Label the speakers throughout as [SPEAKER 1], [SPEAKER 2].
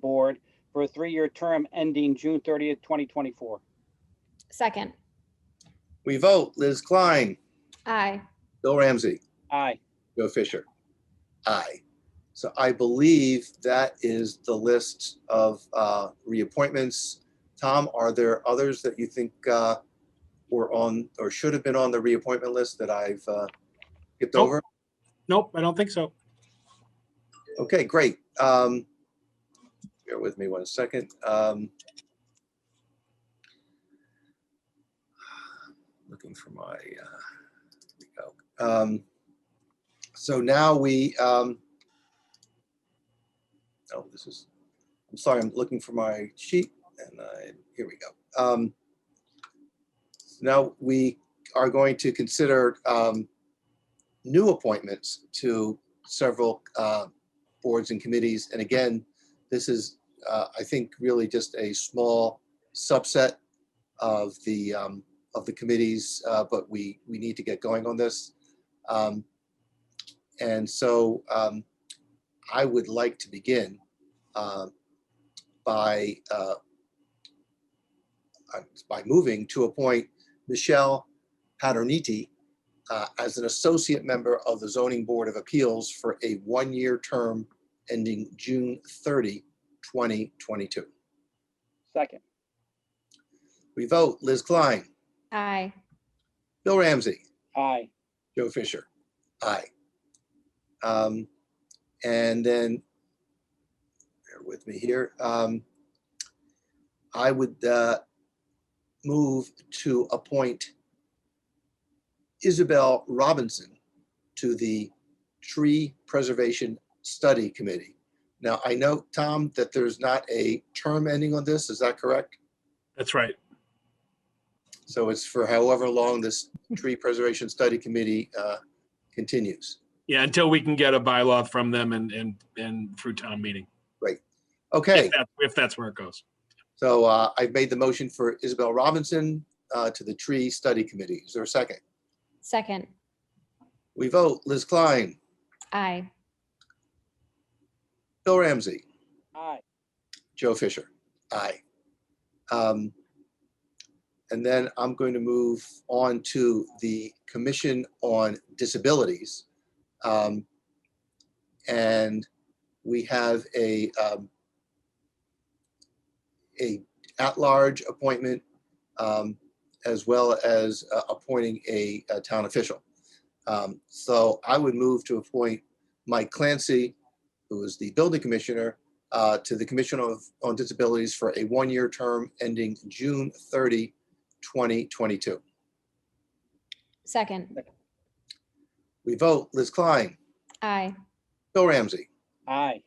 [SPEAKER 1] Board for a three-year term ending June 30th, 2024.
[SPEAKER 2] Second,
[SPEAKER 3] We vote Liz Klein,
[SPEAKER 2] aye.
[SPEAKER 3] Bill Ramsey,
[SPEAKER 1] Aye.
[SPEAKER 3] Joe Fisher. Aye. So I believe that is the list of uh, reappointments. Tom, are there others that you think uh, were on or should have been on the reappointment list that I've uh, skipped
[SPEAKER 4] Nope.
[SPEAKER 3] over?
[SPEAKER 4] Nope, I don't think so.
[SPEAKER 3] Okay, great. Um, Bear with me one second. Um, Looking for my, uh, here we go. Um, So now we, um, oh, this is, I'm sorry, I'm looking for my sheet and I, here we go. Um, Now we are going to consider um, new appointments to several uh, boards and committees. And again, this is, uh, I think, really just a small subset of the, um, of the committees, uh, but we, we need to get going on this. Um, And so um, I would like to begin um, by, uh, uh, by moving to appoint Michelle Paterniti uh, as an associate member of the Zoning Board of Appeals for a one-year term ending June 30, 2022.
[SPEAKER 1] Second.
[SPEAKER 3] We vote Liz Klein,
[SPEAKER 2] Aye.
[SPEAKER 3] Bill Ramsey,
[SPEAKER 1] Aye.
[SPEAKER 3] Joe Fisher. Aye. Um, And then, bear with me here. um, I would uh, move to appoint Isabel Robinson to the Tree Preservation Study Committee. Now, I know, Tom, that there's not a term ending on this. Is that correct?
[SPEAKER 4] That's right.
[SPEAKER 3] So it's for however long this tree preservation study committee uh, continues.
[SPEAKER 4] Yeah, until we can get a bylaw from them and, and, and through town meeting.
[SPEAKER 3] Okay,
[SPEAKER 4] If that- if that's where it goes.
[SPEAKER 3] so uh, I've made the motion for Isabel Robinson uh, to the tree study committee. Is there a second?
[SPEAKER 2] Second,
[SPEAKER 3] We vote Liz Klein,
[SPEAKER 2] aye.
[SPEAKER 3] Bill Ramsey,
[SPEAKER 1] Aye.
[SPEAKER 3] Joe Fisher. Aye. Um, And then I'm going to move on to the Commission on Disabilities. Um, And we have a, um, a at-large appointment um, as well as uh, appointing a a town official. Um, So I would move to appoint Mike Clancy, who is the building commissioner, uh, to the Commission of, on Disabilities for a one-year term ending June 30, 2022.
[SPEAKER 2] Second,
[SPEAKER 3] We vote Liz Klein,
[SPEAKER 2] aye.
[SPEAKER 3] Bill Ramsey,
[SPEAKER 1] Aye.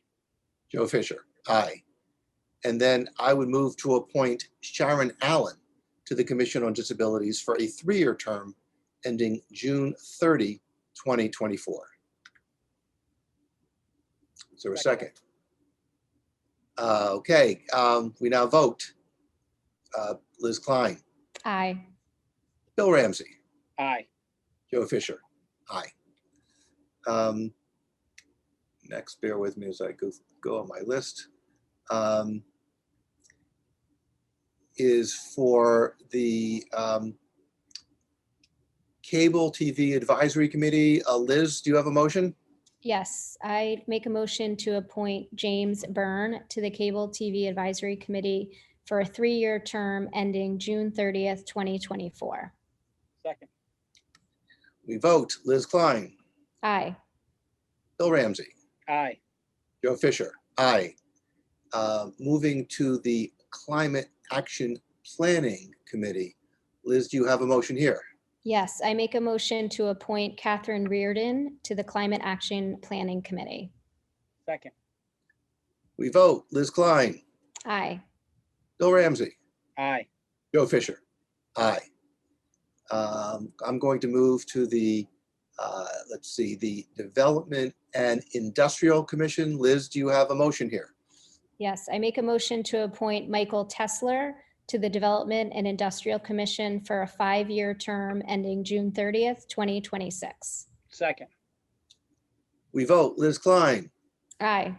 [SPEAKER 3] Joe Fisher, aye. And then I would move to appoint Sharon Allen to the Commission on Disabilities for a three-year term ending June 30, 2024. Is there a second? Uh, Okay, um, we now vote. Uh, Liz Klein,
[SPEAKER 2] Aye.
[SPEAKER 3] Bill Ramsey,
[SPEAKER 1] Aye.
[SPEAKER 3] Joe Fisher, aye. Um, Next, bear with me as I go, go on my list. um, Is for the um, Cable TV Advisory Committee. Uh, Liz, do you have a motion?
[SPEAKER 2] Yes, I make a motion to appoint James Byrne to the Cable TV Advisory Committee for a three-year term ending June 30th, 2024.
[SPEAKER 1] Second.
[SPEAKER 3] We vote Liz Klein,
[SPEAKER 2] Aye.
[SPEAKER 3] Bill Ramsey,
[SPEAKER 1] Aye.
[SPEAKER 3] Joe Fisher, aye. Uh, Moving to the Climate Action Planning Committee. Liz, do you have a motion here?
[SPEAKER 2] Yes, I make a motion to appoint Catherine Reardon to the Climate Action Planning Committee.
[SPEAKER 1] Second.
[SPEAKER 3] We vote Liz Klein,
[SPEAKER 2] Aye.
[SPEAKER 3] Bill Ramsey,
[SPEAKER 1] Aye.
[SPEAKER 3] Joe Fisher. Aye. Um, I'm going to move to the, uh, let's see, the Development and Industrial Commission. Liz, do you have a motion here?
[SPEAKER 2] Yes, I make a motion to appoint Michael Tesler to the Development and Industrial Commission for a five-year term ending June 30th, 2026.
[SPEAKER 1] Second.
[SPEAKER 3] We vote Liz Klein,
[SPEAKER 2] Aye.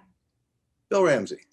[SPEAKER 3] Bill Ramsey,